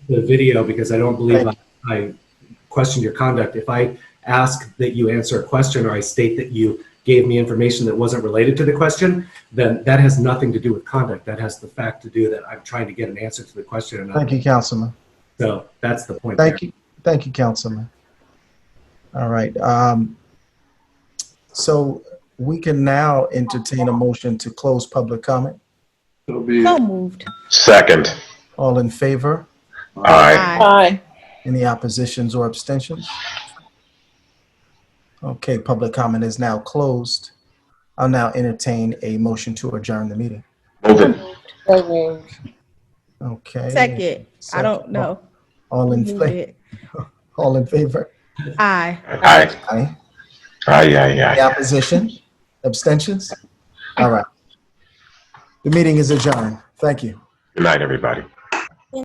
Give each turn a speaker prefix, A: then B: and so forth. A: the video because I don't believe I, I
B: Right.
A: questioned your conduct. If I ask that you answer a question or I state that you gave me information that wasn't related to the question, then that has nothing to do with conduct. That has the fact to do that I'm trying to get an answer to the question. And
B: Thank you, Councilman.
A: So that's the point.
B: Thank you, thank you, Councilman. All right, um, so we can now entertain a motion to close public comment.
C: So be
D: So
C: it.
D: moved.
E: Second.
B: All in favor?
E: Aye.
D: Aye.
B: Any oppositions or abstentions? Okay, public comment is now closed. I'll now entertain a motion to adjourn the meeting.
E: Move it.
F: So moved.
B: Okay.
D: Second. I don't
B: Second.
D: know.
B: All in,
D: Who
B: fa-
D: did?
B: all in favor?
D: Aye.
E: Aye.
B: Aye.
E: Aye, aye, aye.
B: Any opposition? Abstentions? All right. The meeting is adjourned. Thank you.
E: Good night, everybody.